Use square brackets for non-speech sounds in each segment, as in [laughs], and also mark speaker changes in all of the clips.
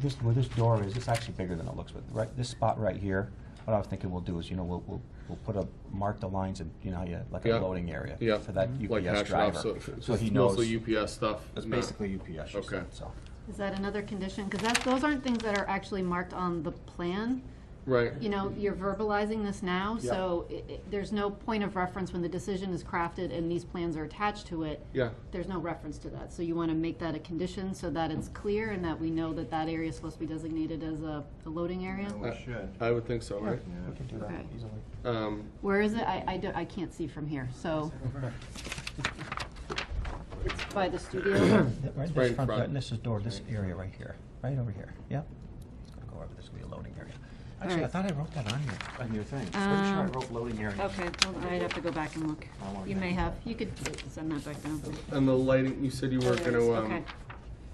Speaker 1: This, where this door is, it's actually bigger than it looks, but right, this spot right here, what I was thinking we'll do is, you know, we'll, we'll, we'll put a, mark the lines and, you know, how you, like a
Speaker 2: Yeah.
Speaker 1: loading area.
Speaker 2: Yeah. Mm-hmm.
Speaker 1: For that UPS
Speaker 2: like hash it off,
Speaker 1: driver.
Speaker 2: so
Speaker 1: So he
Speaker 2: it's
Speaker 1: knows,
Speaker 2: mostly UPS stuff.
Speaker 1: it's
Speaker 2: not-
Speaker 1: basically UPS, she
Speaker 2: Okay.
Speaker 1: said, so.
Speaker 3: Is that another condition? Because that's, those aren't things that are actually marked on the plan.
Speaker 2: Right,
Speaker 3: You know, you're verbalizing this now,
Speaker 1: Yeah.
Speaker 3: so i i there's no point of reference when the decision is crafted and these plans are attached to it.
Speaker 2: yeah,
Speaker 3: There's no reference to that, so you want to make that a condition so that it's clear and that we know that that area is supposed to be designated as a, a loading area.
Speaker 4: We
Speaker 2: Uh,
Speaker 4: should.
Speaker 2: I would think so, right?
Speaker 1: We can do that
Speaker 3: Okay.
Speaker 1: easily.
Speaker 2: Um,
Speaker 3: Where is it? I, I don't- I can't see from here, so. It's by the
Speaker 1: [coughs]
Speaker 3: studio.
Speaker 1: [coughs] Right,
Speaker 2: right
Speaker 1: this
Speaker 2: in
Speaker 1: front,
Speaker 2: front.
Speaker 1: right, this is door, this area right here, right over here, yep. It's gonna go over, this will be a loading area. Actually, I
Speaker 3: right.
Speaker 1: thought I wrote that on your, on your thing. Pretty sure I
Speaker 3: Um,
Speaker 1: wrote loading area.
Speaker 3: Okay, hold on, I'd have to go back and look.
Speaker 1: I wanna
Speaker 3: You
Speaker 1: get
Speaker 3: may
Speaker 1: it.
Speaker 3: have, you could send that back down.
Speaker 2: and the lighting, you said you
Speaker 3: Oh,
Speaker 2: were
Speaker 3: there it is.
Speaker 2: gonna,
Speaker 3: Okay.
Speaker 2: um,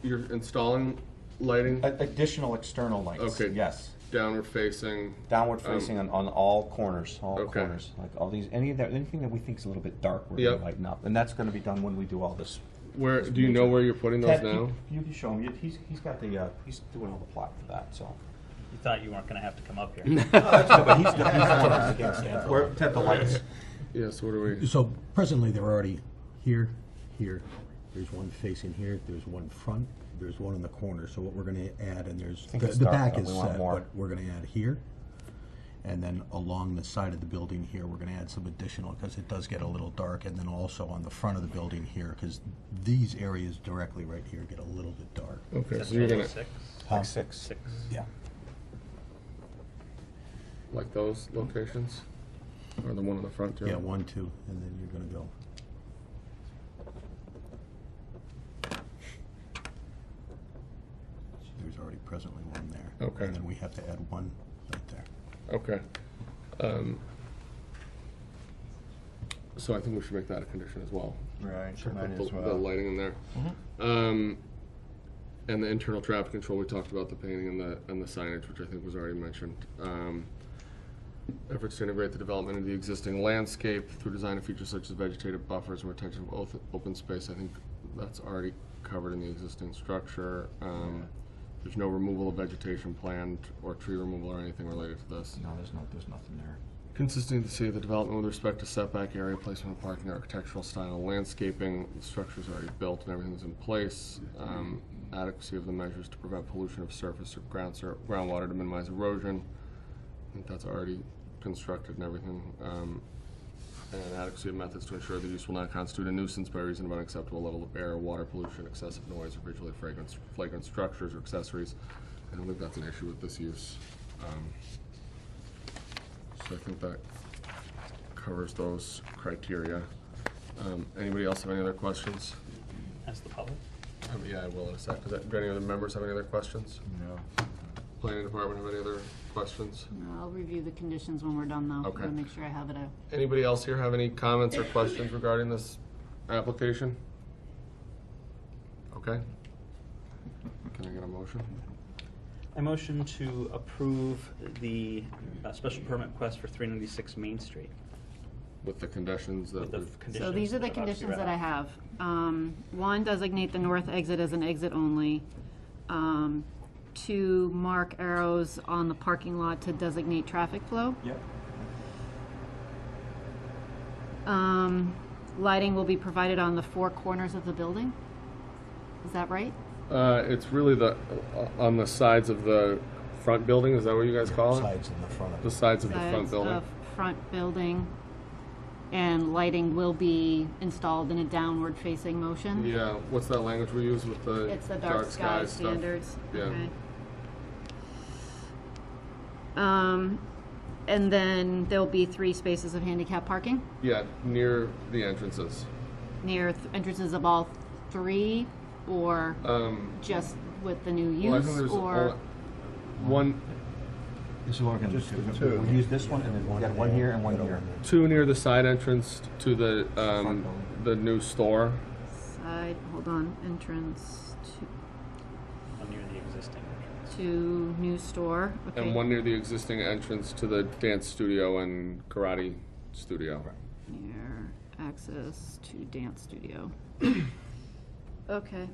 Speaker 2: you're installing lighting
Speaker 1: A- Additional external lights,
Speaker 2: Okay.
Speaker 1: yes.
Speaker 2: downward facing,
Speaker 1: Downward facing on, on all corners, all
Speaker 2: Um, Okay.
Speaker 1: corners, like all these, any of that, anything that we think is a little bit dark, we're
Speaker 2: Yep.
Speaker 1: gonna lighten up, and that's gonna be done when we do all this.
Speaker 2: where, do you know where you're putting those
Speaker 1: Ted, you-
Speaker 2: now?
Speaker 1: You can show him, You- he's, he's got the, uh, he's doing all the plot for that, so.
Speaker 5: You thought you weren't gonna have to come up here.
Speaker 1: But he's, he's the one who's against it. Where, Ted, the
Speaker 2: [laughs]
Speaker 1: lights,
Speaker 2: Yeah, so what are we,
Speaker 6: So presently, they're already here, here, there's one facing here, there's one front, there's one in the corner, so what we're gonna add, and there's,
Speaker 1: think
Speaker 6: the
Speaker 1: it's
Speaker 6: the
Speaker 1: dark,
Speaker 6: back
Speaker 1: but
Speaker 6: is
Speaker 1: we want
Speaker 6: set,
Speaker 1: more.
Speaker 6: but we're gonna add here. And then along the side of the building here, we're gonna add some additional, because it does get a little dark, and then also on the front of the building here, because these areas directly right here get a little bit dark.
Speaker 2: okay, so you're gonna,
Speaker 5: Six,
Speaker 1: like six,
Speaker 5: six.
Speaker 6: Yeah.
Speaker 2: like those locations? Or the one on the front too?
Speaker 6: Yeah, one, two, and then you're gonna go. There's already presently one there.
Speaker 2: Okay.
Speaker 6: And then we have to add one right there.
Speaker 2: Okay. Um, So I think we should make that a condition as well.
Speaker 4: Right,
Speaker 2: Put
Speaker 4: might
Speaker 2: the-
Speaker 4: as
Speaker 2: The
Speaker 4: well.
Speaker 2: lighting in there. Um, and the internal traffic control, we talked about the painting and the, and the signage, which I think was already mentioned. Um, Efforts to integrate the development into the existing landscape through design of features such as vegetative buffers and retention of oth- open space, I think that's already covered in the existing structure. Um, There's no removal of vegetation planned or tree removal or anything related to this.
Speaker 1: no, there's no, there's nothing there.
Speaker 2: Consistency of the development with respect to setback area, placement of parking, architectural style, landscaping, the structure's already built and everything's in place. Um, Adequacy of the measures to prevent pollution of surface or ground sur- groundwater to minimize erosion. I think that's already constructed and everything. Um, And adequacy of methods to ensure the use will not constitute a nuisance by reason of unacceptable level of air, water pollution, excessive noise, or visually fragrant, flagrant structures or accessories. I don't think that's an issue with this use. Um, so I think that covers those criteria. Um, Anybody else have any other questions?
Speaker 5: As the public?
Speaker 2: Um, Yeah, I will in a sec. Does that- Do any other members have any other questions?
Speaker 4: No.
Speaker 2: Planning department have any other questions?
Speaker 3: No, I'll review the conditions when we're done, though.
Speaker 2: Okay.
Speaker 3: to Make sure I have it out.
Speaker 2: Anybody else here have any comments or questions regarding this application? Okay. Can I get a motion?
Speaker 5: I motion to approve the uh, special permit request for 396 Main Street
Speaker 2: With the conditions that
Speaker 5: with the
Speaker 2: we've,
Speaker 5: f- conditions.
Speaker 3: So these are the
Speaker 5: I've obviously
Speaker 3: conditions
Speaker 5: read
Speaker 3: that I
Speaker 5: out.
Speaker 3: have. Um, One, designate the north exit as an exit only. Um, Two, mark arrows on the parking lot to designate traffic flow.
Speaker 1: Yep.
Speaker 3: Um, Lighting will be provided on the four corners of the building. Is that right?
Speaker 2: Uh, it's really the, uh, on the sides of the front building, is that what you guys call it?
Speaker 6: Sides and the front of
Speaker 2: The sides of the front
Speaker 3: Sides
Speaker 2: building?
Speaker 3: of Front building. And lighting will be installed in a downward-facing motion.
Speaker 2: Yeah, what's that language we use with the
Speaker 3: It's the dark sky
Speaker 2: stuff?
Speaker 3: standards,
Speaker 2: Yeah.
Speaker 3: okay. Um, and then there'll be three spaces of handicap parking
Speaker 2: Yeah, near the entrances.
Speaker 3: near th- entrances of all three, or
Speaker 2: Um,
Speaker 3: just with the new
Speaker 2: well, I think
Speaker 3: use,
Speaker 2: there's
Speaker 3: or?
Speaker 2: only one,
Speaker 1: This is what we're gonna do, we'll use this one, and then we got one here and one here.
Speaker 2: two near the side entrance to the um,
Speaker 1: building.
Speaker 2: the new store.
Speaker 3: Side, hold on, entrance
Speaker 5: One near the existing.
Speaker 3: to, to new store, okay.
Speaker 2: And one near the existing entrance to the dance studio and karate studio. [coughs]
Speaker 3: Near access to dance studio. Okay,